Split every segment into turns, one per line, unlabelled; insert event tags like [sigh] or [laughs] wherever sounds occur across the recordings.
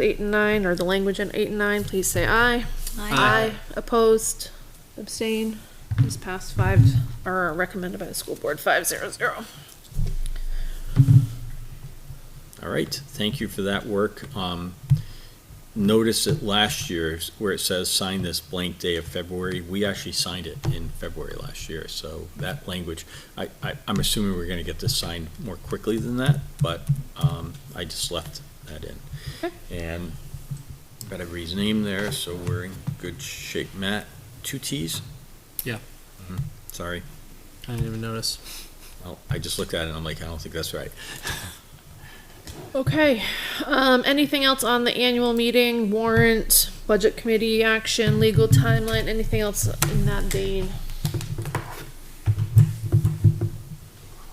eight and nine, or the language in eight and nine, please say aye.
Aye.
Opposed, abstain, these passed five, or recommended by the school board, five zero zero.
All right, thank you for that work. Um, Notice that last year, where it says sign this blank day of February, we actually signed it in February last year, so that language, I, I, I'm assuming we're gonna get this signed more quickly than that, but, um, I just left that in. And got everybody's name there, so we're in good shape. Matt, two Ts?
Yeah.
Mhm, Sorry,
I didn't even notice.
Well, I just looked at it and I'm like, I don't think that's right.
Okay, um, anything else on the annual meeting, warrant, budget committee action, legal timeline, anything else in that vein?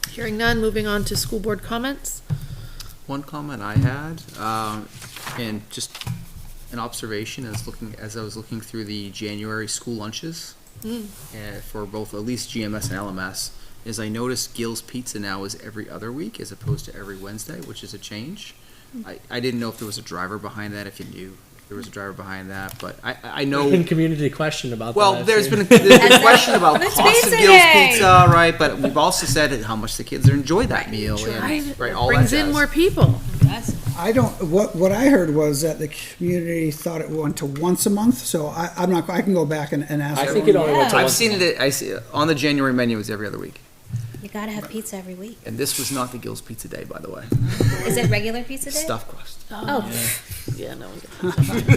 Hearing none, moving on to school board comments.
One comment I had, um, and just an observation as looking, as I was looking through the January school lunches,
Hmm.
uh, for both at least GMS and LMS, is I noticed Gil's Pizza now is every other week as opposed to every Wednesday, which is a change.
Hmm.
I, I didn't know if there was a driver behind that, if you knew if there was a driver behind that, but I, I I
There's been
know,
community question about
well,
that.
there's been,
[laughs]
there's been a question about
It's
cost of
Pizza
Gil's
Day.
Pizza, right, but we've also said how much the kids enjoy that meal, and, right, all that
Brings in
jazz.
more people.
I don't, what, what I heard was that the community thought it went to once a month, so I, I'm not, I can go back and, and ask.
I think it
everyone.
only went to
Yeah.
one.
I've seen it. at- I see on the January menu is every other week,
You gotta have pizza every week.
and this was not the Gills Pizza Day, by the way.
Is it regular pizza day?
Stuff crust.
Oh,
Yeah, no one's.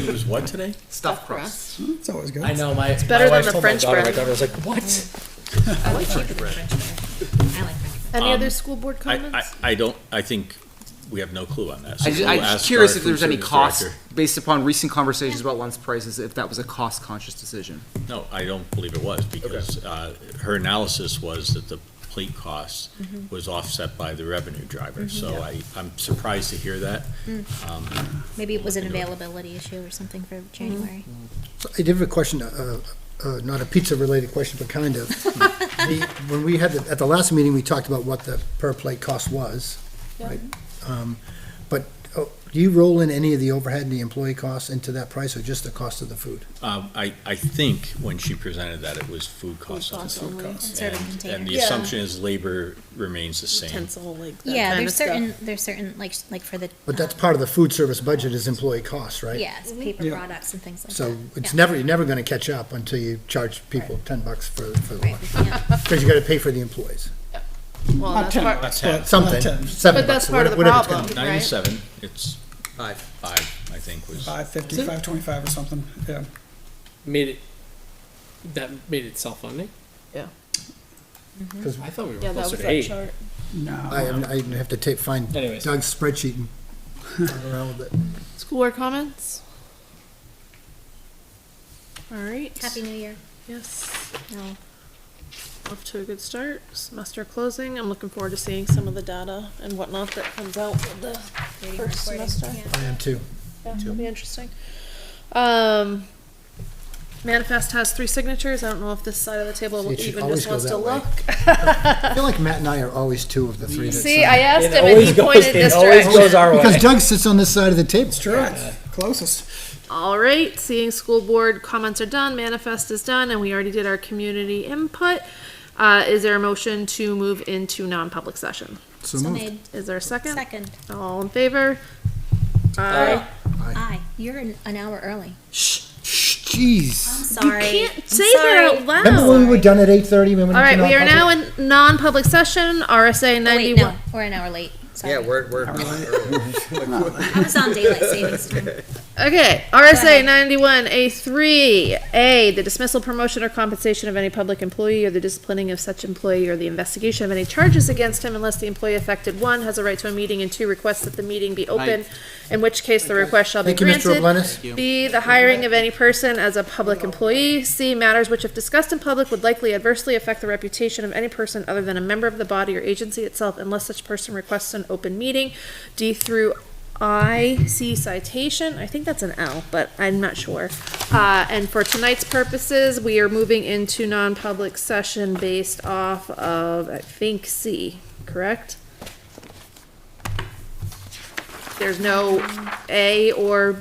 It was what today?
Stuff crust.
It's always good.
I know my. It's
better
my
than
wife
the
told
French
my daughter,
bread.
My daughter was like, "What?"
I like cheaper than French bread. I like French bread.
Any
Um,
other school board
I,
comments?
I, I don't, I think we have no clue on that. so
I just,
we'll
I'm just
ask
curious
our
if there was
food
any
service
cost
director.
based upon recent conversations about lunch prices. If that was a cost-conscious decision,
No, I don't believe it was, because, uh, her analysis was that the plate cost
Mm-hmm.
was offset by the revenue driver, so I, I'm surprised to hear that.
Mm.
Um,
Maybe it was an
Look into it.
availability issue or something for
Mm-hmm.
January.
So I did have a question, uh, uh, not a pizza-related question, but kind
[laughs]
of. The- When we had, the- at the last meeting, we talked about what the per plate cost was, right? Um, But oh, do you roll in any of the overhead and the employee costs into that price, or just the cost of the food?
Um, I, I think when she presented that, it was food costs.
Food costs
only.
only.
And-
Serving
And
container.
the
Yeah.
assumption is labor remains the same.
Pencil, like that
Yeah,
kind
there's
of stuff.
certain, there's certain, like, sh- like for the.
But that's
um,
part of the food service budget is employee costs, right?
Yes,
Mm-hmm.
paper
Yeah.
products and things like that.
So it's
Yeah.
never, you're never gonna catch up until you charge people ten bucks for, for the
Right,
lunch,
yeah.
because you gotta pay for the employees.
Well,
Not
that's
ten.
part-
That's half.
Something,
ten.
seven
But that's
bucks,
part of the
whatever whatever it's gonna
problem.
Ninety-seven, it's
Five.
five, I think, was.
Five fifty, five twenty-five or something, yeah.
Made it. That made it self-funding.
be, 'cause
I thought we were
Yeah, that
closer
was
to
that
eight.
chart.
I,
No,
I have to take, find
Anyways.
Doug's spreadsheet and run around with it.
School board comments? All right.
Happy New Year.
Yes,
No,
off to a good start. Semester closing. I'm looking forward to seeing some of the data and whatnot that comes out with the
reading and
first
recording.
semester.
Yeah.
I am too.
Yeah, it'll be interesting. Um, manifest has three signatures. I don't know if this side of the table
See, it should
even
always
just
go
wants to
that way.
look.
[laughs]
I feel like Matt and I are always two of the three.
[laughs]
that
See,
sign.
I asked
It
him and
always
he
goes-
pointed
it
this
always
direction.
goes our
Because
way.
Doug sits on this side of the table.
it's true, closest.
All right, seeing school board comments are done, manifest is done, and we already did our community input. Uh, is there a motion to move into non-public session?
So
So
moved.
made,
Is there a second?
second,
All in favor? Aye.
aye. You're an an hour early. I'm
Jeez.
sorry.
Can't
I'm
say that
sorry.
out loud.
Remember when we were done at eight thirty? All
All right, we are now in non-public session, RSA
Oh, Wait,
ninety-one.
no, we're an hour late. Sorry.
Yeah, we're we're
I was on daylight savings
[laughs]
time.
Okay, RSA ninety-one, A three, A, the dismissal, promotion, or compensation of any public employee, or the disciplining of such employee, or the investigation of any charges against him unless the employee affected, one, has a right to a meeting, and two, requests that the meeting be open, in which case the request shall be
Thank you, Mr.
granted.
Oblenis.
B, the hiring of any person as a public employee. C, matters which if discussed in public would likely adversely affect the reputation of any person other than a member of the body or agency itself unless such person requests an open meeting. D through I, C citation, I think that's an L, but I'm not sure. Uh, and for tonight's purposes, we are moving into non-public session based off of, I think, C, correct? There's no A or